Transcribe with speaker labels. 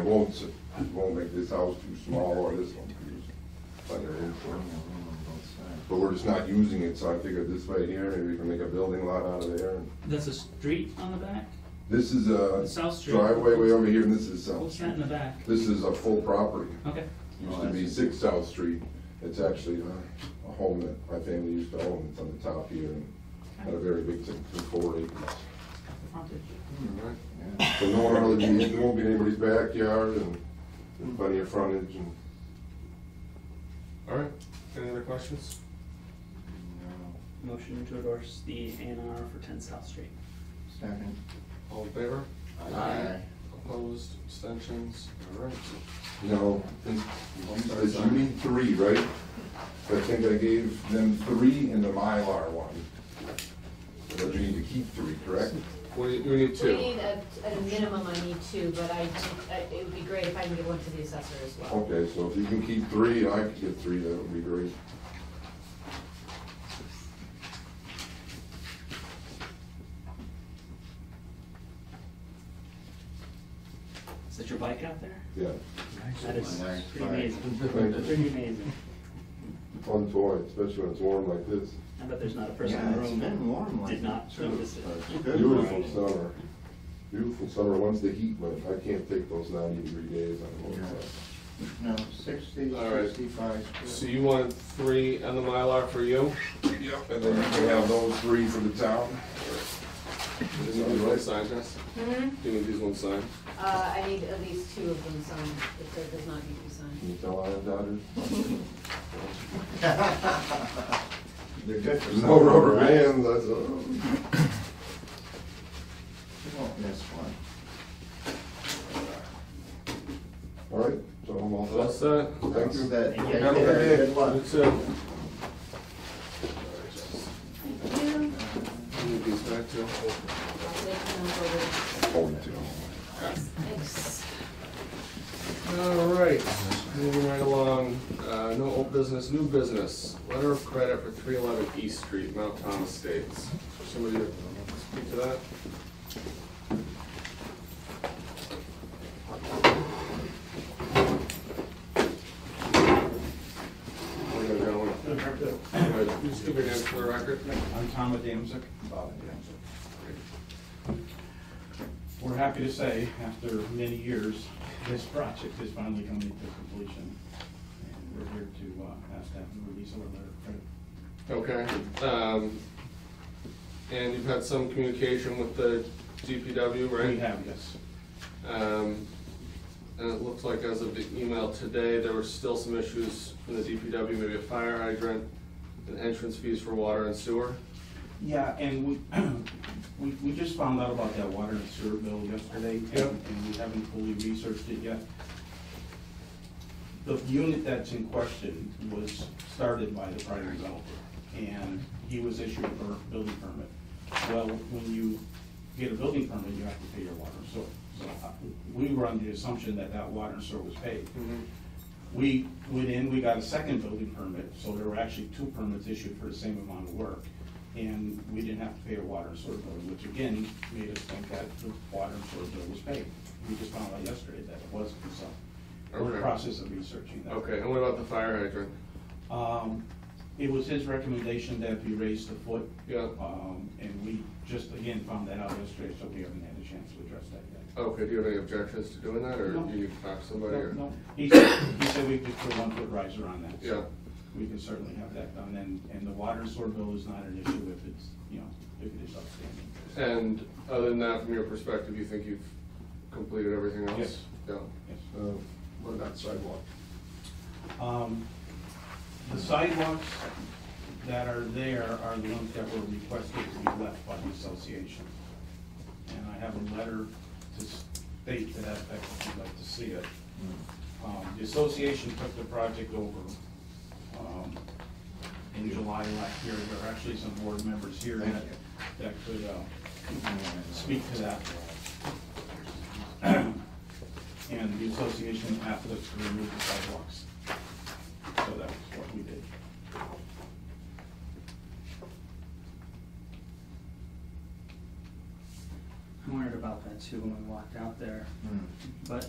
Speaker 1: won't, s- it won't make this house too small or this one too small. uh, But we're just not using it, so I figured this way here, maybe we can make a building lot out of there.
Speaker 2: That's a street on the back?
Speaker 1: This is
Speaker 3: Uh,
Speaker 1: a
Speaker 2: South Street.
Speaker 1: driveway way over here, and this is South
Speaker 2: What's that in
Speaker 1: Street.
Speaker 2: the back?
Speaker 1: This is a full property.
Speaker 2: Okay,
Speaker 1: Used to
Speaker 3: Oh,
Speaker 1: be six South Street. It's actually uh, a- a home that my family used to own. It's on the top here, and had a very big, thing, four acres.
Speaker 2: frontage.
Speaker 1: So no one really, be- it won't be anybody's backyard and plenty of frontage and.
Speaker 4: All right, any other questions?
Speaker 2: Motion to endorse the A and R for ten South Street.
Speaker 3: Second.
Speaker 4: All in favor?
Speaker 3: Aye.
Speaker 4: Opposed, abstentions, all right.
Speaker 1: No, it's, you need three, right? I think I gave them three in the Mylar one. But you need to keep three, correct?
Speaker 4: We, we need
Speaker 5: We
Speaker 4: two.
Speaker 5: need, at, at a minimum, I need two, but I, do- I- it would be great if I can get one to the assessor as well.
Speaker 1: Okay, so if you can keep three, I could get three, that would be great.
Speaker 2: Is that your bike out there?
Speaker 1: Yeah,
Speaker 2: That is
Speaker 3: Nice
Speaker 2: pretty
Speaker 3: bike.
Speaker 2: amazing. Pretty amazing.
Speaker 1: fun toy, especially when it's warm like this.
Speaker 2: I bet there's not a person in
Speaker 3: Yeah,
Speaker 2: the
Speaker 3: it's
Speaker 2: room that
Speaker 3: been warm like.
Speaker 2: did not
Speaker 3: too,
Speaker 2: notice it.
Speaker 3: but it's good
Speaker 1: Beautiful
Speaker 3: riding.
Speaker 1: summer. Beautiful summer, once the heat went, I can't take those ninety degree days on the
Speaker 3: Yeah.
Speaker 1: road.
Speaker 3: No, sixty,
Speaker 4: All right.
Speaker 3: sixty-five.
Speaker 4: So you wanted three and the Mylar for you?
Speaker 1: Yep. And then you can have those three for the town.
Speaker 4: Do you need one signed, Jess?
Speaker 5: Mhm.
Speaker 4: Do you need these ones signed?
Speaker 5: Uh, I need at least two of them signed, if there does not need to be
Speaker 1: Can
Speaker 5: signed.
Speaker 1: you tell I have daughters?
Speaker 3: They're good for.
Speaker 1: There's no
Speaker 3: something,
Speaker 1: rubber
Speaker 3: right?
Speaker 1: bands, that's all.
Speaker 3: You won't miss one.
Speaker 1: All right, so I'm all set.
Speaker 4: All set?
Speaker 1: Thank you.
Speaker 3: That's it.
Speaker 2: Thank you.
Speaker 3: Take care. Good luck.
Speaker 4: You too.
Speaker 5: Two.
Speaker 4: You need these back too.
Speaker 5: They can move over. Thanks.
Speaker 4: All right, moving right along, uh, no old business, new business, letter of credit for three eleven East Street, Mount Tom Estates. Somebody speak to that? How you going? Good. Can you Just give your name for the record.
Speaker 6: I'm Tom Adamczyk, Bob Adamczyk. We're happy to say, after many years, this project is finally coming to completion. And we're here to uh, ask that we release a letter of credit.
Speaker 4: Okay, um, and you've had some communication with the DPW, right?
Speaker 6: We have, yes.
Speaker 4: Um, And it looks like as of the email today, there were still some issues from the DPW, maybe a fire hydrant, and entrance fees for water and sewer.
Speaker 6: Yeah, and we, we, we just found out about that water and sewer bill yesterday, and,
Speaker 4: Yep.
Speaker 6: and we haven't fully researched it yet. The unit that's in question was started by the prior developer, and he was issued a per- building permit. Well, when you get a building permit, you have to pay your water and sewer. So uh, we were under the assumption that that water and sewer was paid.
Speaker 4: Hmm.
Speaker 6: Mm-hmm. We went in, we got a second building permit, so there were actually two permits issued for the same amount of work. And we didn't have to pay a water and sewer bill, which again made us think that the water and sewer bill was paid. We just found out yesterday that it wasn't, so we're in
Speaker 4: Okay.
Speaker 6: the process of researching that.
Speaker 4: Okay, and what about the fire hydrant?
Speaker 6: Um, it was his recommendation that we raise the foot.
Speaker 4: Yeah.
Speaker 6: Um, and we just, again, found that out yesterday, so we haven't had a chance to address that yet.
Speaker 4: Okay, do you have any objections to doing that, or
Speaker 6: No.
Speaker 4: do you need to talk to somebody?
Speaker 6: No,
Speaker 4: or-
Speaker 6: no. He said, he said we could put one foot riser on that. so
Speaker 4: Yeah.
Speaker 6: We can certainly have that done, and, and the water and sewer bill is not an issue if it's, you know, if it is outstanding.
Speaker 4: And other than that, from your perspective, you think you've completed everything else?
Speaker 6: Yes.
Speaker 4: Yeah.
Speaker 6: Yes.
Speaker 1: Uh, What about sidewalk?
Speaker 6: Um, The sidewalks that are there are the ones that were requested to be left by the association. And I have a letter to state to that effect, if you'd like to see it. Um, The association took the project over um, in July last year. There are actually some board members here that that could uh, speak to that. And the association asked us to remove the sidewalks. So that's what we did.
Speaker 2: I wondered about that too when we walked out there,
Speaker 3: Hmm.
Speaker 2: but